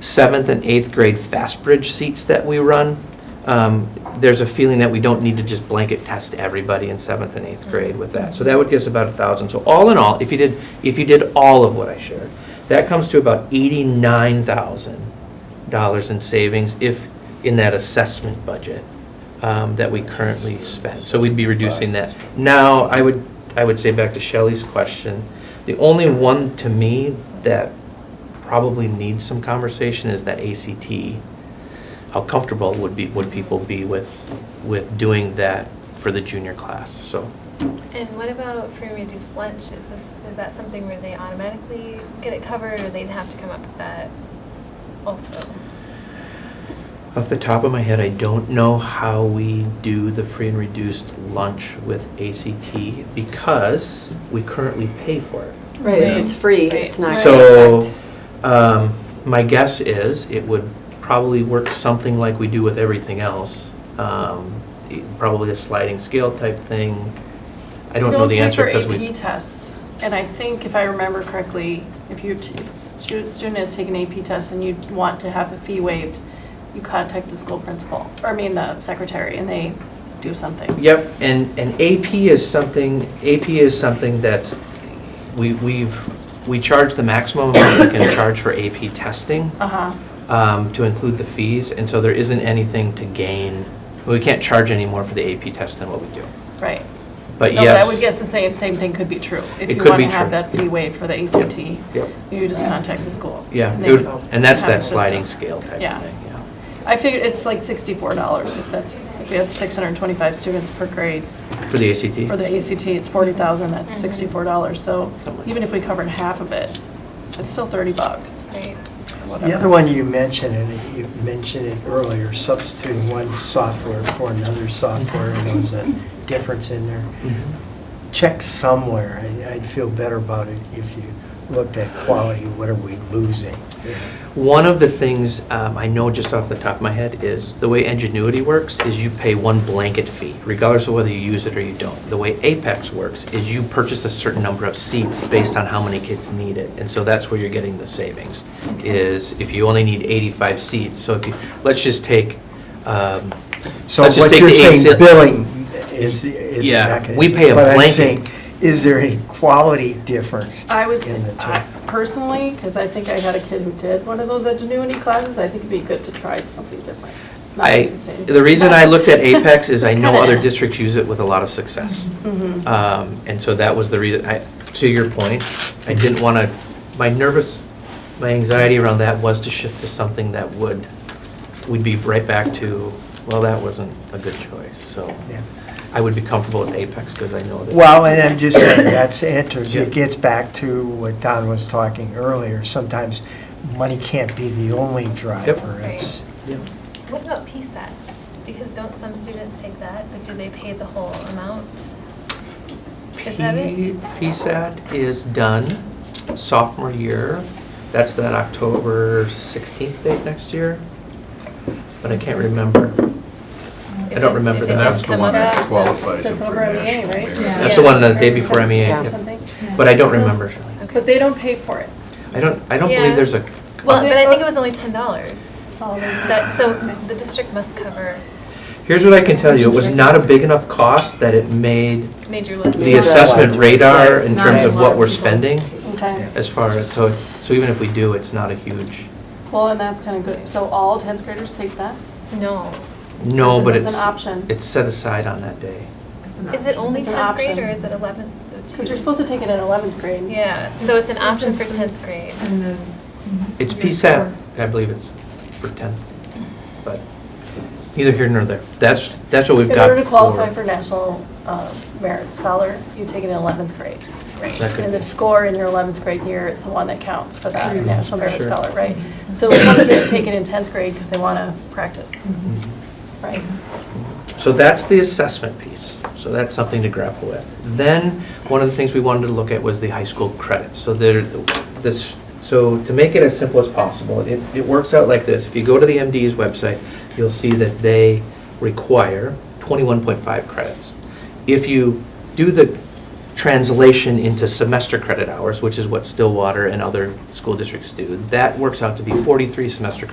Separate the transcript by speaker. Speaker 1: seventh and eighth grade fast bridge seats that we run, um, there's a feeling that we don't need to just blanket test everybody in seventh and eighth grade with that. So that would give us about a thousand. So all in all, if you did, if you did all of what I shared, that comes to about eighty-nine thousand dollars in savings if, in that assessment budget um, that we currently spend. So we'd be reducing that. Now, I would, I would say back to Shelley's question, the only one to me that probably needs some conversation is that ACT. How comfortable would be, would people be with, with doing that for the junior class? So
Speaker 2: And what about free reduced lunch? Is this, is that something where they automatically get it covered, or they'd have to come up with that also?
Speaker 1: off the top of my head, I don't know how we do the free and reduced lunch with ACT because we currently pay for it.
Speaker 3: Right, if
Speaker 2: Right.
Speaker 3: it's free,
Speaker 2: Right.
Speaker 3: it's not.
Speaker 1: So, um, my guess is it would probably work something like we do with everything else. Um, it- Probably a sliding scale type thing. I don't know the answer because
Speaker 4: We don't pay
Speaker 1: we,
Speaker 4: for AP tests, and I think if I remember correctly, if you, if a stu- student has taken AP tests and you want to have the fee waived, you contact the school principal, or I mean the secretary, and they do something.
Speaker 1: yep, and, and AP is something, AP is something that's, we, we've, we charge the maximum amount we can charge for AP testing.
Speaker 4: Uh-huh,
Speaker 1: um, to include the fees, and so there isn't anything to gain. We can't charge any more for the AP test than what we do.
Speaker 4: right.
Speaker 1: But
Speaker 4: No, I would
Speaker 1: yes,
Speaker 4: guess the same, same thing could be true.
Speaker 1: It could be
Speaker 4: If you want to have
Speaker 1: true.
Speaker 4: that fee waived for the ACT,
Speaker 1: yep.
Speaker 4: you just contact the school.
Speaker 1: yeah,
Speaker 4: and
Speaker 1: it
Speaker 4: they
Speaker 1: would-
Speaker 4: have
Speaker 1: and that's
Speaker 4: a
Speaker 1: that
Speaker 4: system.
Speaker 1: sliding scale type of thing,
Speaker 4: Yeah.
Speaker 1: yeah.
Speaker 4: I figured it's like sixty-four dollars if that's, if we have six hundred and twenty-five students per grade.
Speaker 1: For the ACT?
Speaker 4: For the ACT, it's forty thousand, that's
Speaker 2: Mhm.
Speaker 4: sixty-four dollars, so
Speaker 1: Something like
Speaker 4: even if we covered half of it, it's still thirty bucks.
Speaker 2: Right.
Speaker 5: The other one you mentioned, and you mentioned it earlier, substituting one software for another software, and there was a difference in there.
Speaker 1: Mm-hmm.
Speaker 5: Check somewhere, I- I'd feel better about it if you looked at quality, what are we losing?
Speaker 1: One of the things um, I know just off the top of my head is, the way Ingenuity works is you pay one blanket fee, regardless of whether you use it or you don't. The way Apex works is you purchase a certain number of seats based on how many kids need it. And so that's where you're getting the savings, is if you only need 85 seats, so if you, let's just take, um,
Speaker 5: So
Speaker 1: Let's just
Speaker 5: what
Speaker 1: take
Speaker 5: you're
Speaker 1: the
Speaker 5: saying,
Speaker 1: ACL
Speaker 5: billing is, the- is the
Speaker 1: Yeah,
Speaker 5: mechanism.
Speaker 1: we pay a
Speaker 5: But I'm
Speaker 1: blanket.
Speaker 5: saying, is there a quality difference?
Speaker 4: I would say,
Speaker 5: in the two?
Speaker 4: I- personally, because I think I had a kid who did one of those ingenuity classes, I think it'd be good to try something different. not
Speaker 1: I,
Speaker 4: the same.
Speaker 1: the reason I looked at Apex is I
Speaker 4: It's
Speaker 1: know
Speaker 4: kinda-
Speaker 1: other districts use it with a lot of success.
Speaker 4: Mhm.
Speaker 1: Um, And so that was the reason, I, to your point, I didn't want to, my nervous, my anxiety around that was to shift to something that would, we'd be right back to, well, that wasn't a good choice, so
Speaker 5: Yeah.
Speaker 1: I would be comfortable with Apex because I know that.
Speaker 5: Well, and I'm just saying, that's, enters,
Speaker 1: Yeah.
Speaker 5: it gets back to what Don was talking earlier, sometimes money can't be the only driver. It's,
Speaker 1: Yeah.
Speaker 2: What about PSAT? Because don't some students take that, but do they pay the whole amount?
Speaker 4: Mm.
Speaker 2: Is that
Speaker 1: P-
Speaker 2: it?
Speaker 1: PSAT is done sophomore year. That's that October 16th date next year, but I can't remember.
Speaker 2: It
Speaker 1: I don't
Speaker 2: didn't-
Speaker 1: remember
Speaker 2: if
Speaker 1: that.
Speaker 2: it
Speaker 6: That's
Speaker 2: didn't
Speaker 6: the
Speaker 2: come
Speaker 6: one
Speaker 2: up-
Speaker 6: that qualifies them
Speaker 4: That's
Speaker 6: for
Speaker 4: over on the A,
Speaker 6: national.
Speaker 4: right?
Speaker 6: merit.
Speaker 2: Yeah.
Speaker 1: That's the one the day before MEA.
Speaker 4: Yeah,
Speaker 1: yeah.
Speaker 4: something.
Speaker 1: But I don't remember.
Speaker 4: But they don't pay for it.
Speaker 1: I don't, I don't
Speaker 2: Yeah.
Speaker 1: believe there's a.
Speaker 2: Well, but I think it
Speaker 4: Oh.
Speaker 2: was only ten dollars.
Speaker 4: Oh, they-
Speaker 2: That, so the district must cover
Speaker 1: Here's what I can tell you, it was not a big enough cost that it made
Speaker 2: major list.
Speaker 1: the assessment radar in
Speaker 7: Not
Speaker 1: terms
Speaker 7: a
Speaker 1: of
Speaker 7: lot
Speaker 1: what we're
Speaker 7: people.
Speaker 1: spending
Speaker 4: Okay.
Speaker 1: as far as, so, so even if we do, it's not a huge,
Speaker 4: Well, and that's kind of good. So all 10th graders take that?
Speaker 2: No.
Speaker 1: no, but
Speaker 4: It's
Speaker 1: it's,
Speaker 4: an option.
Speaker 1: it's set aside on that day.
Speaker 2: Is it only
Speaker 4: It's an
Speaker 2: tenth grade
Speaker 4: option.
Speaker 2: or is it eleventh?
Speaker 4: Because you're supposed to take it in 11th grade.
Speaker 2: Yeah, so it's an
Speaker 7: It's-
Speaker 2: option for
Speaker 7: it's a-
Speaker 2: tenth grade.
Speaker 7: And then-
Speaker 1: It's
Speaker 7: Yeah,
Speaker 1: PSAT,
Speaker 7: sure.
Speaker 1: I believe it's for 10th, but neither here nor there. That's, that's what we've
Speaker 4: In
Speaker 1: got
Speaker 4: order to qualify for
Speaker 1: for.
Speaker 4: National uh, Merit Scholar, you take it in 11th grade. Right.
Speaker 1: That could
Speaker 4: And
Speaker 1: be.
Speaker 4: the score in your 11th grade year is the one that counts for that
Speaker 7: Sure.
Speaker 4: National Merit
Speaker 1: Sure.
Speaker 4: Scholar, right? So some kids take it in 10th grade because they want to practice,
Speaker 7: Mhm.
Speaker 1: Mm-hmm.
Speaker 4: right?
Speaker 1: So that's the assessment piece. So that's something to grapple with. Then, one of the things we wanted to look at was the high school credits. So there, this, so to make it as simple as possible, it, it works out like this. If you go to the MD's website, you'll see that they require 21.5 credits. If you do the translation into semester credit hours, which is what Stillwater and other school districts do, that works out to be 43 semester